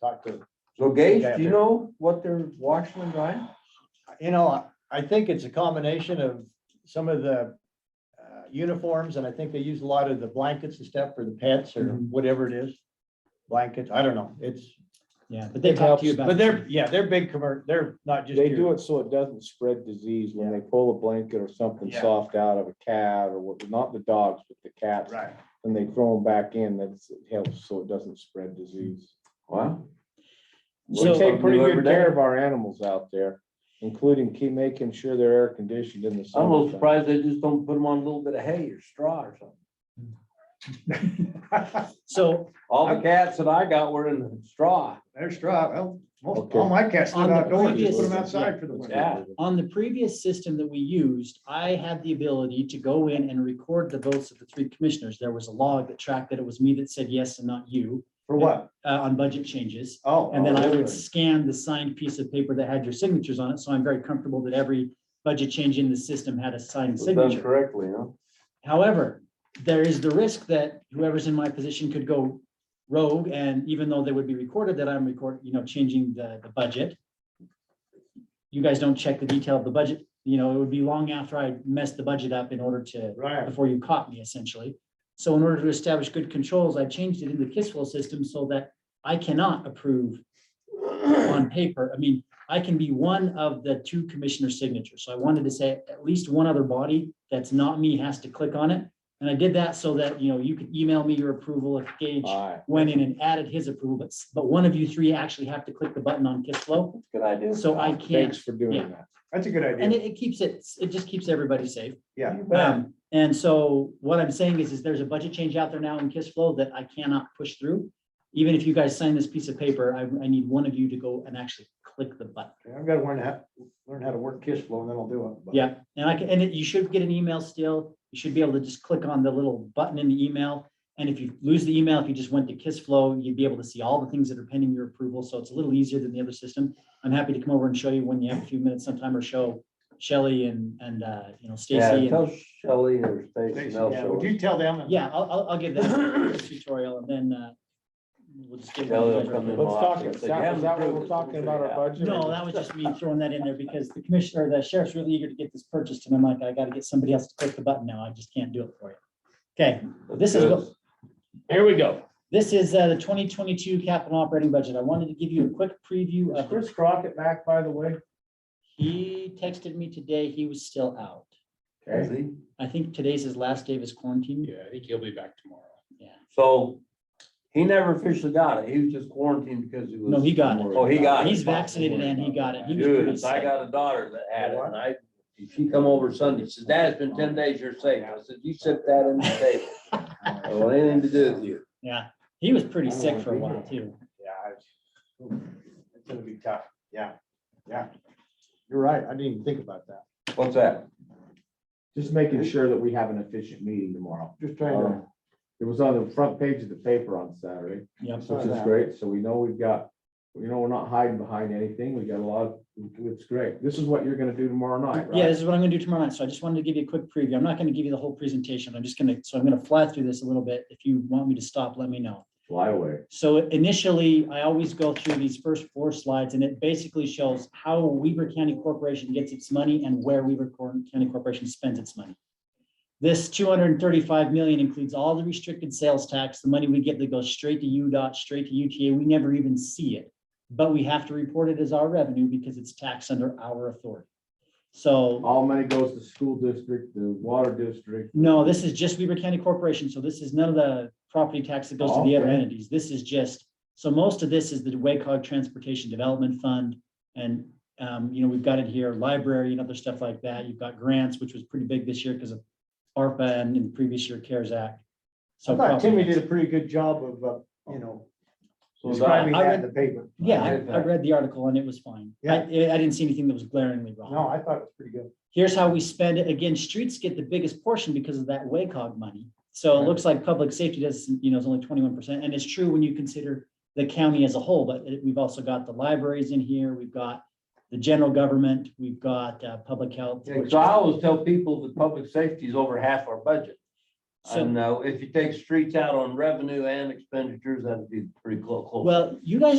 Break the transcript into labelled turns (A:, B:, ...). A: talk to,
B: So Gage,
A: Yeah,
B: do you
A: they're-
B: know what they're washing and drying?
A: you know, I- I think it's a combination of some of the uh, uniforms, and I think they use a lot of the blankets and stuff for the pets or
B: Mhm.
A: whatever it is. Blankets, I don't know, it's,
C: Yeah, but they
A: It
C: talk to you
A: helps,
C: about.
A: But they're, yeah, they're big commer, they're not just
D: They do
A: here.
D: it so it doesn't spread disease when they pull a blanket or something
A: Yeah.
D: soft out of a cat or what, not the dogs, but the cats.
A: Right.
D: And they throw them back in, that's, it helps so it doesn't spread disease.
B: Wow.
D: We
C: So-
D: take pretty
B: Something every
D: good care
B: day.
D: of our animals out there, including keep making sure they're air conditioned in the
B: I'm a little
D: summer.
B: surprised they just don't put them on a little bit of hay or straw or something.
C: So
B: All the cats that I got were in the straw.
A: There's straw, well, most,
D: Okay.
A: all my cats live
C: On the
A: outdoors, just put
C: previous-
A: them outside for the winter.
B: Yeah.
C: on the previous system that we used, I had the ability to go in and record the votes of the three commissioners. There was a log that tracked that it was me that said yes and not you
A: For what?
C: uh, on budget changes.
A: Oh.
C: And then I
A: okay.
C: would scan the signed piece of paper that had your signatures on it. So I'm very comfortable that every budget change in the system had a signed
B: Was done
C: signature.
B: correctly, huh?
C: However, there is the risk that whoever's in my position could go rogue and even though they would be recorded that I'm recording, you know, changing the, the budget. You guys don't check the detail of the budget, you know, it would be long after I messed the budget up in order to,
A: Right,
C: before you caught me essentially. So in order to establish good controls, I changed it in the KISS system so that I cannot approve on paper. I mean, I can be one of the two commissioner signatures. So I wanted to say at least one other body that's not me has to click on it. And I did that so that, you know, you could email me your approval if Gage
D: Aye.
C: went in and added his approval, but, s- but one of you three actually have to click the button on KISS Flow.
B: Good idea.
C: So I can't,
D: Thanks for doing
C: yeah.
D: that.
A: that's a good
C: and
A: idea,
C: it, it keeps it, it just keeps everybody safe.
A: yeah.
C: Um, and so what I'm saying is, is there's a budget change out there now in KISS flow that I cannot push through. Even if you guys sign this piece of paper, I, I need one of you to go and actually click the button.
A: I've gotta learn how, learn how to work kiss flow, and then I'll do it. but-
C: Yeah, and I can, and it- you should get an email still. You should be able to just click on the little button in the email. And if you lose the email, if you just went to KISS flow, you'd be able to see all the things that are pending your approval. So it's a little easier than the other system. I'm happy to come over and show you when you have a few minutes sometime or show Shelley and, and, uh, you know, Stacy.
B: Yeah,
C: and-
B: tell Shelley or Stacy
A: Stacy, yeah, Would
B: Nelson.
A: you tell them?
C: Yeah, I'll, I'll, I'll give that a tutorial and then, uh, we'll just get.
B: They'll come in.
D: Let's talk,
B: If
D: is
B: they
D: that
B: haven't
D: is that what
B: approved
D: we're
B: it,
D: talking
B: we'll
D: about
B: figure it
D: our
B: out.
D: budget?
C: No, that was just me throwing that in there because the commissioner, the sheriff's really eager to get this purchased and I'm like, I gotta get somebody else to click the button now. I just can't do it for you. Okay, this is what-
D: Here we go.
C: this is, uh, the twenty twenty-two capital operating budget. I wanted to give you a quick preview
A: Is
C: of it.
A: Chris Crockett back, by the way?
C: He texted me today. He was still out.
B: Is he?
C: I think today's his last day of his quarantine.
E: Yeah, I think he'll be back tomorrow.
B: So he never officially got it. He was just quarantined because he was.
C: No, he got it.
B: Oh, he got it.
C: He's vaccinated and he got it. He was pretty
B: Dude, I
C: sick.
B: got a daughter that had it, and I, she come over Sunday, she says, Dad, it's been ten days, you're safe. I said, you sit that on the table. I don't want anything to do with you.
C: Yeah, he was pretty
A: I don't
C: sick
A: wanna
C: for a
A: be
C: while
A: there.
C: too.
A: Yeah. It's it's gonna be tough, yeah, yeah. You're right, I didn't even think about that.
B: What's that?
D: Just making sure that we have an efficient meeting tomorrow.
A: Just trying to,
D: It was on the front page of the paper on Saturday.
C: Yep.
D: Which is great, so we know we've got, you know, we're not hiding behind anything, we got a lot, of it's great, this is what you're gonna do tomorrow night,
C: Yeah,
D: right?
C: this is what I'm gonna do tomorrow night. So I just wanted to give you a quick preview. I'm not gonna give you the whole presentation. I'm just gonna, so I'm gonna fly through this a little bit. If you want me to stop, let me know.
D: Fly away.
C: So initially, I always go through these first four slides and it basically shows how Weaver County Corporation gets its money and where Weaver Cor- County Corporation spends its money. This two hundred and thirty-five million includes all the restricted sales tax, the money we get that goes straight to UDOT, straight to UTA. We never even see it. But we have to report it as our revenue because it's taxed under our authority. So
D: All money goes to school district, the water district,
C: no, this is just Weaver County Corporation, so this is none of the property tax that goes to
A: Oh,
C: the other
D: Okay.
C: entities, this is just, so most of this is the WACOG Transportation Development Fund. And, um, you know, we've got it here, library and other stuff like that, you've got grants, which was pretty big this year because of ARPA and in previous year CARES Act. So.
A: I thought Timmy
C: property
A: did
C: tax.
A: a pretty good job of, uh, you know,
B: So
A: describing
C: I
A: that in the paper.
C: Yeah, I, I read the article and it was fine, I, I didn't see anything that was glaringly wrong.
A: No, I thought it was pretty good.
C: Here's how we spend it. Again, streets get the biggest portion because of that WACOG money. So it looks like public safety doesn't, you know, is only twenty-one percent. And it's true when you consider the county as a whole, but it- we've also got the libraries in here. We've got the general government, we've got uh, public health. which-
B: So I always tell people that public safety is over half our budget.
C: So-
B: And uh, if you take streets out on revenue and expenditures, that'd be pretty clo- close.
C: Well, you guys